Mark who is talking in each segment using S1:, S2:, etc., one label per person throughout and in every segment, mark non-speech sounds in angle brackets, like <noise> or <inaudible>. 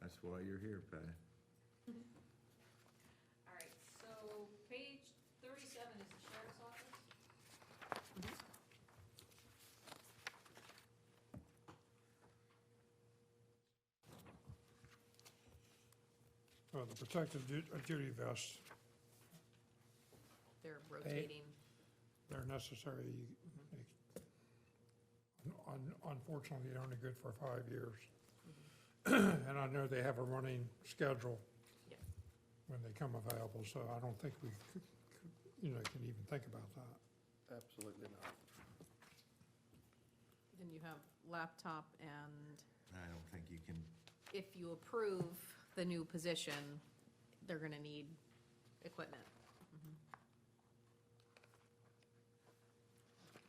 S1: That's why you're here, Patty.
S2: All right, so page thirty-seven is the sheriff's office.
S3: Mm-hmm.
S4: Uh, the protective du- uh, duty vests,
S3: They're rotating.
S4: they're necessary. They- un- Unfortunately, they're only good for five years. <clears throat> And I know they have a running schedule
S3: Yeah.
S4: when they come available, so I don't think we, could- could, you know, can even think about that.
S5: Absolutely not.
S3: Then you have laptop, and
S1: I don't think you can,
S3: if you approve the new position, they're gonna need equipment.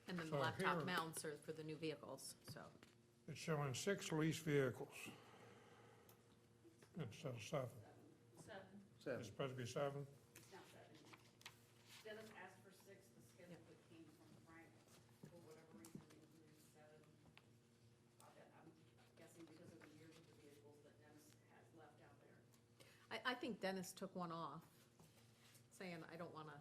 S3: Mm-hmm. And then the
S4: So
S3: laptop
S4: here-
S3: mounts are for the new vehicles, so.
S4: It's showing six leased vehicles instead of seven.
S2: Seven,
S4: It's
S5: Seven.
S4: supposed to be seven?
S6: It's not seven. Dennis asked for six, the schedule that came from Frank, for whatever reason, included seven. Uh, that I'm guessing because of the years of the vehicles that Dennis has left out there.
S3: I, I think Dennis took one off, saying, I don't wanna.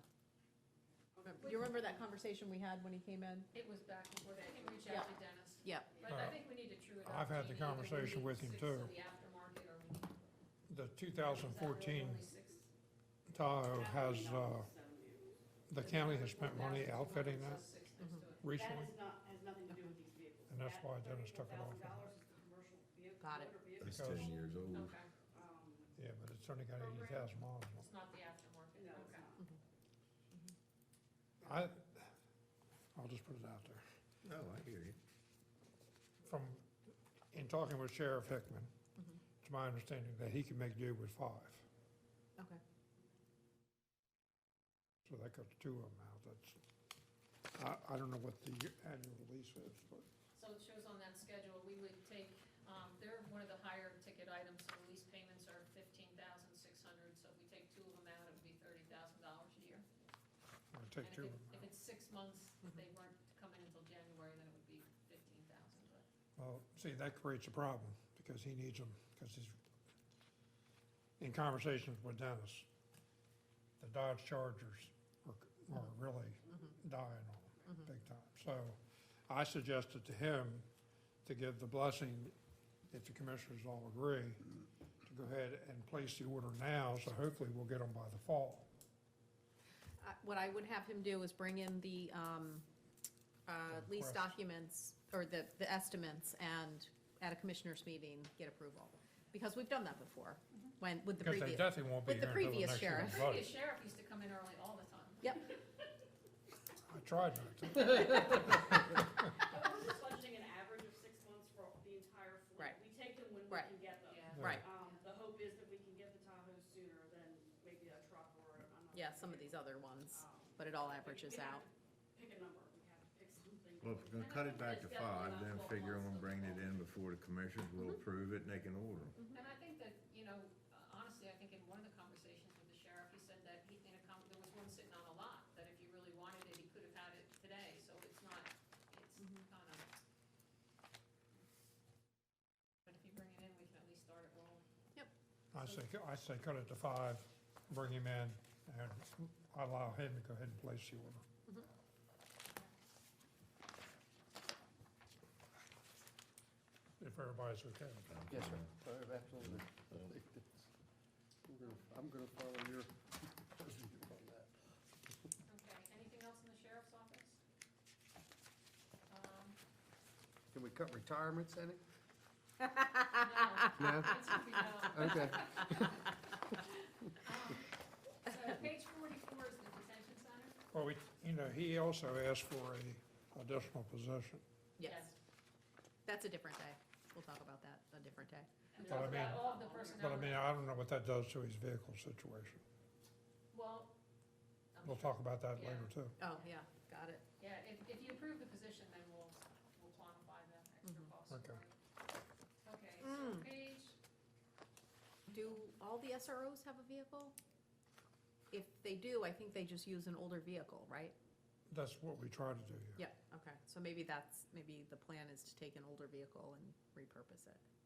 S3: Remember- You remember that conversation we had when he came in?
S2: it was back and forth, I can reach out to Dennis.
S3: Yeah.
S2: But I think we need to true it up.
S4: Uh, I've had the
S2: Jamie, either we
S4: conversation
S2: need
S4: with him,
S2: six
S4: too.
S2: of the aftermarket or we need-
S4: The
S2: is that really
S4: 2014
S2: only six?
S4: Tahoe has, uh,
S6: Seven vehicles.
S4: the county has spent money outfitting
S2: So
S4: that
S2: six next to it.
S4: recently.
S6: That is not, has nothing to do with these vehicles.
S4: And that's why Dennis took it off.
S6: That $34,000 is the commercial vehicle.
S3: Got it.
S6: motor vehicle.
S1: it's ten years old.
S2: Okay,
S6: Um,
S4: Yeah, but it's only got eighty thousand miles on it.
S2: it's not the aftermarket,
S6: No, it's
S2: okay.
S4: I,
S6: not.
S4: I'll just put it out there.
S1: No, I hear you.
S4: From, in talking with Sheriff Hickman,
S2: Mm-hmm.
S4: it's my understanding that he can make do with five.
S3: Okay.
S4: So that cuts two of them out. That's, I, I don't know what the annual release is, but
S2: So it shows on that schedule, we would take, um, they're one of the higher ticket items, so lease payments are fifteen thousand six hundred, so if we take two of them out, it would be thirty thousand dollars a year.
S4: I'll
S2: And
S4: take
S2: if
S4: two of
S2: it, if
S4: them out.
S2: it's six months, if they weren't to come in until January, then it would be fifteen thousand, but.
S4: Well, see, that creates a problem because he needs them, because he's, in conversations with Dennis, the Dodge Chargers are, are really dying on him, big time. So I suggested to him to give the blessing, if the commissioners all agree, to go ahead and place the order now, so hopefully we'll get them by the fall.
S3: I- What I would have him do is bring in the, um, uh, lease
S4: Request.
S3: documents, or the, the estimates, and at a commissioners meeting, get approval. Because we've done that before,
S2: Mm-hmm.
S3: when, with the
S4: Because
S3: previous.
S4: they definitely won't be
S3: with
S4: here
S3: the
S4: until the
S3: previous
S4: next year's
S3: sheriff.
S2: Previous
S4: budget.
S2: sheriff used to come in early all the time.
S3: Yep,
S4: I tried not to.
S6: But we're just budgeting an average of six months for the entire fleet.
S3: Right.
S6: We take them when we
S3: Right.
S6: can get them.
S2: Yeah.
S3: Right.
S6: Um, the hope is that we can get the Tahoe sooner than maybe a truck or another.
S3: yeah, some of these other ones,
S6: Um,
S3: but it all
S6: but
S3: averages
S6: we have
S3: out.
S6: to Pick a number, we have to pick something.
S1: Well, if we're gonna cut it back to five, then figure on bringing it in before the commissioners will approve it and they can order them.
S2: And I think that, you know, honestly, I think in one of the conversations with the sheriff, he said that he, in a, com- there was one sitting on a lot, that if you really wanted it, he could have had it today, so it's not, it's
S3: Mm-hmm.
S2: kind of. But if you bring it in, we can at least start it rolling.
S3: Yep,
S4: I say, I say cut it to five, bring him in, and allow him to go ahead and place the order. If everybody's okay with that.
S5: Yes, sir. Uh, Absolutely. I think that's- I'm gonna- I'm going to follow your <laughs> procedure on that.
S2: Okay, anything else in the sheriff's office?
S4: <laughs>
S2: Um,
S5: Can we cut retirements in it? <laughs>
S2: no,
S5: No?
S2: it's gonna be
S4: <laughs>
S2: no.
S5: Okay.
S2: So page forty-four is the detention center?
S4: Well, we, you know, he also asked for a additional position.
S3: yes, that's a different day. We'll talk about that a different day.
S2: And
S4: But I
S2: talk about
S4: mean-
S2: all of the
S4: But I mean,
S2: personnel,
S4: I don't know what that does to his vehicle situation.
S2: well. I'm
S4: We'll
S2: sure.
S4: talk about that later, too.
S3: Oh, yeah, got it.
S2: Yeah, if, if you approve the position, then we'll, we'll quantify the extra
S3: Mm-hmm.
S2: cost.
S4: Okay.
S2: Okay,
S3: Mm.
S2: so page,
S3: Do all the SROs have a vehicle? If they do, I think they just use an older vehicle, right?
S4: That's what we try to do here.
S3: Yeah, okay, so maybe that's, maybe the plan is to take an older vehicle and repurpose it.